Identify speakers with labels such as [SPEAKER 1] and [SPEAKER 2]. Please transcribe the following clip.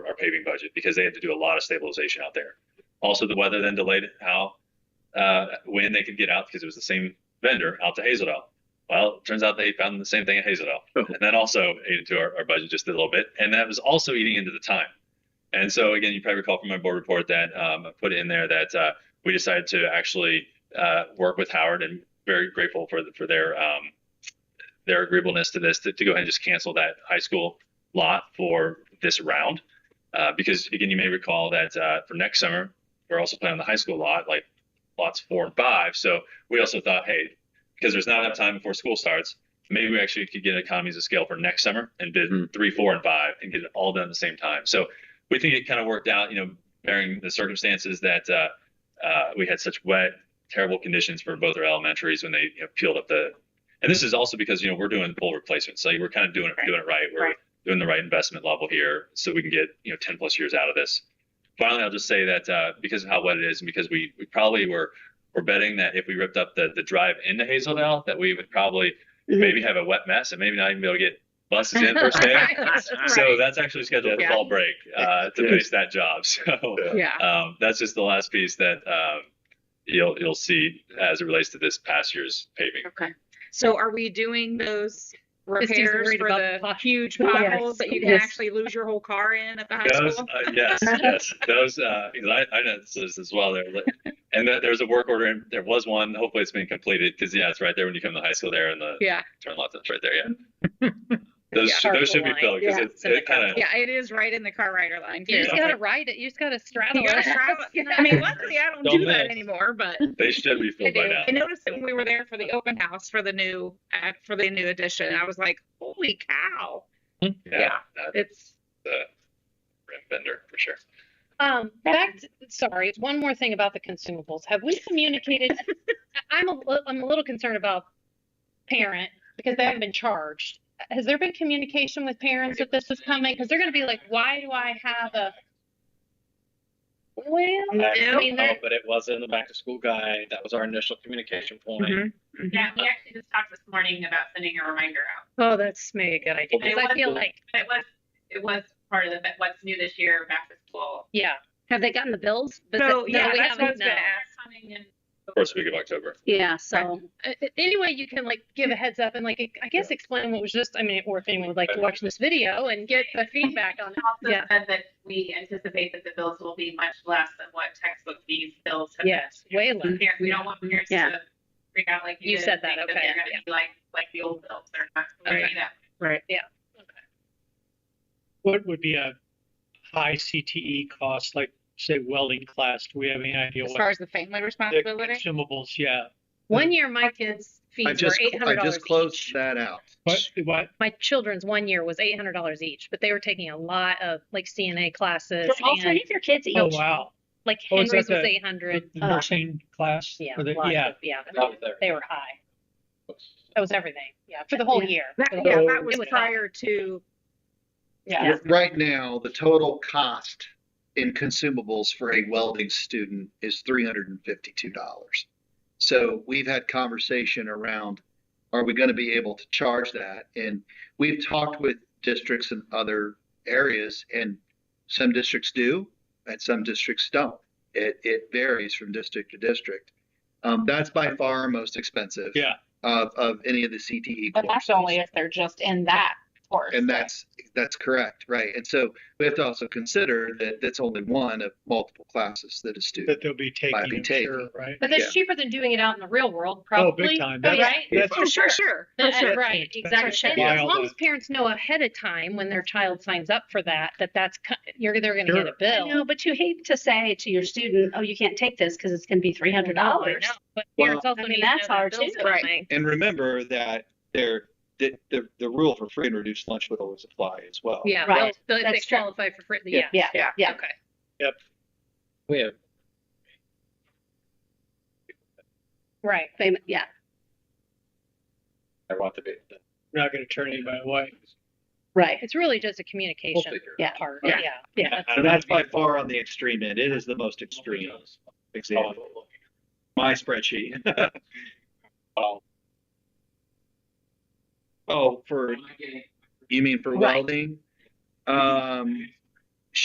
[SPEAKER 1] paving budget because they had to do a lot of stabilization out there. Also, the weather then delayed how, uh, when they could get out because it was the same vendor out to Hazeldale. Well, it turns out they found the same thing in Hazeldale.
[SPEAKER 2] Oh.
[SPEAKER 1] And that also ate into our, our budget just a little bit. And that was also eating into the time. And so, again, you probably recall from my board report that um, I put in there that uh, we decided to actually uh, work with Howard and very grateful for, the, for their um, their agreeableness to this to, to go ahead and just cancel that high school lot for this round. Uh, because again, you may recall that uh, for next summer, we're also planning on the high school lot, like lots four and five. So we also thought, hey, because there's not enough time before school starts, maybe we actually could get economies of scale for next summer and bid
[SPEAKER 2] Hmm.
[SPEAKER 1] three, four, and five and get it all done at the same time. So we think it kind of worked out, you know, bearing the circumstances that uh, uh, we had such wet, terrible conditions for both our elementaries when they you know, peeled up the. And this is also because you know we're doing full replacement, so we're kind of doing it
[SPEAKER 3] Right.
[SPEAKER 1] doing it right. We're
[SPEAKER 3] Right.
[SPEAKER 1] doing the right investment level here, so we can get you know 10 plus years out of this. Finally, I'll just say that uh, because of how wet it is, and because we we probably were we're betting that if we ripped up the the drive into Hazeldale, that we would probably
[SPEAKER 3] Mhm.
[SPEAKER 1] maybe have a wet mess and maybe not even be able to get buses in first day. So
[SPEAKER 3] Right.
[SPEAKER 1] that's actually scheduled for
[SPEAKER 3] Yeah.
[SPEAKER 1] fall break uh, to
[SPEAKER 2] Yeah.
[SPEAKER 1] finish that job. So
[SPEAKER 3] Yeah.
[SPEAKER 1] um, that's just the last piece that um, you'll you'll see as it relates to this past year's paving.
[SPEAKER 4] Okay.
[SPEAKER 3] So are we doing those
[SPEAKER 4] Christy's
[SPEAKER 3] repairs
[SPEAKER 4] worried
[SPEAKER 3] for
[SPEAKER 4] about
[SPEAKER 3] the
[SPEAKER 4] pot-
[SPEAKER 3] huge
[SPEAKER 5] Yes.
[SPEAKER 3] potholes that you can
[SPEAKER 5] Yes.
[SPEAKER 3] actually lose your whole car in at the high
[SPEAKER 1] Those, uh,
[SPEAKER 3] school?
[SPEAKER 1] yes, yes, those. Uh, because I, I know this is as well. There, and there- there's a work order. And there was one. Hopefully, it's been completed. Because yeah, it's right there when you come to high school. There in the
[SPEAKER 3] Yeah,
[SPEAKER 1] turn left. That's right there. Yeah. Those
[SPEAKER 3] Yeah.
[SPEAKER 1] should, those should be filled because
[SPEAKER 5] Yeah.
[SPEAKER 1] it, it kind of.
[SPEAKER 3] yeah, it is right in the car rider line.
[SPEAKER 4] You
[SPEAKER 3] too.
[SPEAKER 4] just gotta ride it. You just gotta straddle
[SPEAKER 3] You gotta
[SPEAKER 4] it.
[SPEAKER 3] travel- I mean, luckily I don't
[SPEAKER 1] Don't
[SPEAKER 3] do that
[SPEAKER 1] miss.
[SPEAKER 3] anymore, but
[SPEAKER 1] They should be
[SPEAKER 3] I
[SPEAKER 1] filled by
[SPEAKER 3] do.
[SPEAKER 1] now.
[SPEAKER 3] I noticed that when we were there for the open house for the new, uh, for the new edition, I was like, holy cow.
[SPEAKER 1] Yeah. That's
[SPEAKER 3] It's,
[SPEAKER 1] the rim bender for sure.
[SPEAKER 4] Um, back. To, sorry, one more thing about the consumables. Have we communicated? I'm a, li- I'm a little concerned about parent because they haven't been charged. Has there been communication with parents that this is coming? Because they're going to be like, why do I have a? Well, I
[SPEAKER 3] No.
[SPEAKER 4] mean,
[SPEAKER 6] No,
[SPEAKER 4] they're,
[SPEAKER 6] Oh, but it was in the back to school guide. That was our initial communication point.
[SPEAKER 3] Mhm.
[SPEAKER 7] Yeah, we actually just talked this morning about sending a reminder out.
[SPEAKER 4] oh, that's maybe a good idea.
[SPEAKER 7] Okay.
[SPEAKER 4] 'Cause I feel like,
[SPEAKER 7] But it was, it was part of the, what's new this year, back to school.
[SPEAKER 4] yeah.
[SPEAKER 5] Have they gotten the bills? But
[SPEAKER 3] so,
[SPEAKER 5] the-
[SPEAKER 4] no,
[SPEAKER 3] yeah, that's
[SPEAKER 4] we
[SPEAKER 3] what I was
[SPEAKER 4] haven't,
[SPEAKER 3] gonna
[SPEAKER 4] no.
[SPEAKER 3] ask.
[SPEAKER 7] Coming in.
[SPEAKER 1] First week of October.
[SPEAKER 5] yeah, so
[SPEAKER 4] Uh, uh, any way you can like give a heads up and like I guess explain what was just I mean or if anyone would like to watch this video and get the feedback on it.
[SPEAKER 7] Also
[SPEAKER 4] Yeah.
[SPEAKER 7] said that we anticipate that the bills will be much less than what textbook fees bills have. been.
[SPEAKER 4] Yes, way less.
[SPEAKER 7] Parents- We don't want parents
[SPEAKER 5] Yeah.
[SPEAKER 7] to freak out like you
[SPEAKER 4] You
[SPEAKER 7] did
[SPEAKER 4] said
[SPEAKER 7] and
[SPEAKER 4] that,
[SPEAKER 7] think
[SPEAKER 4] okay,
[SPEAKER 7] They're
[SPEAKER 4] yeah.
[SPEAKER 7] gonna be like, like the old bills, they're not, we're
[SPEAKER 4] Okay.
[SPEAKER 7] gonna do that.
[SPEAKER 8] What would be a high CTE cost, like say welding class? Do we have any idea
[SPEAKER 3] As
[SPEAKER 8] what
[SPEAKER 3] far as the family
[SPEAKER 8] the
[SPEAKER 3] responsibility?
[SPEAKER 8] consumables? Yeah,
[SPEAKER 4] One year my kids'
[SPEAKER 2] I
[SPEAKER 4] fees were
[SPEAKER 2] just,
[SPEAKER 4] eight
[SPEAKER 2] I
[SPEAKER 4] hundred dollars
[SPEAKER 2] just closed
[SPEAKER 4] each.
[SPEAKER 2] that out.
[SPEAKER 8] but what
[SPEAKER 4] My children's one year was eight hundred dollars each, but they were taking a lot of like CNA classes
[SPEAKER 5] for all
[SPEAKER 4] and
[SPEAKER 5] three of your kids
[SPEAKER 8] Oh
[SPEAKER 5] each.
[SPEAKER 8] wow,
[SPEAKER 4] like
[SPEAKER 8] Oh, is that
[SPEAKER 4] Henry's was
[SPEAKER 8] the-
[SPEAKER 4] eight
[SPEAKER 8] the
[SPEAKER 4] hundred.
[SPEAKER 8] the
[SPEAKER 5] Uh,
[SPEAKER 8] nursing class?
[SPEAKER 4] Yeah,
[SPEAKER 8] Or the-
[SPEAKER 4] lots
[SPEAKER 8] yeah.
[SPEAKER 4] of- yeah,
[SPEAKER 6] That was there.
[SPEAKER 4] they were high. That was everything. Yeah, for the whole
[SPEAKER 5] Yeah.
[SPEAKER 4] year.
[SPEAKER 3] That,
[SPEAKER 4] For the
[SPEAKER 3] yeah,
[SPEAKER 4] whole-
[SPEAKER 3] that was
[SPEAKER 4] it was-
[SPEAKER 3] prior to,
[SPEAKER 4] Yeah.
[SPEAKER 2] Right now, the total cost in consumables for a welding student is three hundred and fifty-two dollars. So we've had conversation around, are we gonna be able to charge that? And we've talked with districts in other areas and some districts do and some districts don't. It, it varies from district to district. Um, that's by far our most expensive.
[SPEAKER 8] Yeah.
[SPEAKER 2] Of, of any of the E CTE
[SPEAKER 9] And that's
[SPEAKER 2] courses.
[SPEAKER 9] only if they're just in that course.
[SPEAKER 2] And that's, that's correct, right? And so we have to also consider that that's only one of multiple classes that a student.
[SPEAKER 8] That they'll be taking,
[SPEAKER 2] be
[SPEAKER 8] I'm
[SPEAKER 2] taking.
[SPEAKER 8] sure, right? Oh,
[SPEAKER 4] But
[SPEAKER 2] Yeah.
[SPEAKER 4] that's cheaper than doing it out in the real world, probably. Oh,
[SPEAKER 8] time. That's-
[SPEAKER 4] Right?
[SPEAKER 8] That's
[SPEAKER 7] Oh,
[SPEAKER 3] for sure, sure. for
[SPEAKER 4] Uh,
[SPEAKER 3] sure.
[SPEAKER 4] Right,
[SPEAKER 8] That's
[SPEAKER 4] exactly.
[SPEAKER 8] why
[SPEAKER 4] And As
[SPEAKER 8] all
[SPEAKER 4] long
[SPEAKER 8] the-
[SPEAKER 4] as parents know ahead of time when their child signs up for that, that that's, co- you're, they're gonna get a
[SPEAKER 8] Sure.
[SPEAKER 5] I
[SPEAKER 4] bill.
[SPEAKER 5] know, but you hate to say to your student, oh, you can't take this because it's gonna be three hundred dollars.
[SPEAKER 4] Oh, But
[SPEAKER 2] Well,
[SPEAKER 4] parents
[SPEAKER 5] I
[SPEAKER 4] also
[SPEAKER 5] mean,
[SPEAKER 4] need to know
[SPEAKER 5] that's
[SPEAKER 4] their
[SPEAKER 5] hard
[SPEAKER 4] bills
[SPEAKER 5] too.
[SPEAKER 4] are
[SPEAKER 3] Right.
[SPEAKER 4] coming.
[SPEAKER 6] And remember that there, the, the, the rule for free and reduced lunch would always apply as well.
[SPEAKER 4] Yeah,
[SPEAKER 5] Right.
[SPEAKER 4] they'll- they'll- they
[SPEAKER 5] That's true.
[SPEAKER 4] qualify for free, yeah.
[SPEAKER 5] Yeah,
[SPEAKER 3] Yeah.
[SPEAKER 5] yeah.
[SPEAKER 4] Okay.
[SPEAKER 6] We have
[SPEAKER 4] Right.
[SPEAKER 5] Fam- Yeah,
[SPEAKER 6] I want to be.
[SPEAKER 8] We're not going to turn anybody away.
[SPEAKER 5] right.
[SPEAKER 4] It's really just a
[SPEAKER 6] We'll
[SPEAKER 4] communication
[SPEAKER 6] figure it
[SPEAKER 5] Yeah.
[SPEAKER 4] part,
[SPEAKER 3] Yeah.
[SPEAKER 4] yeah.
[SPEAKER 5] Yeah.
[SPEAKER 4] That's-
[SPEAKER 6] And that's by far on the extreme end. It is the most extreme example. My spreadsheet. Oh, for
[SPEAKER 2] You mean for
[SPEAKER 6] oh,
[SPEAKER 4] Right.
[SPEAKER 2] welding? Um,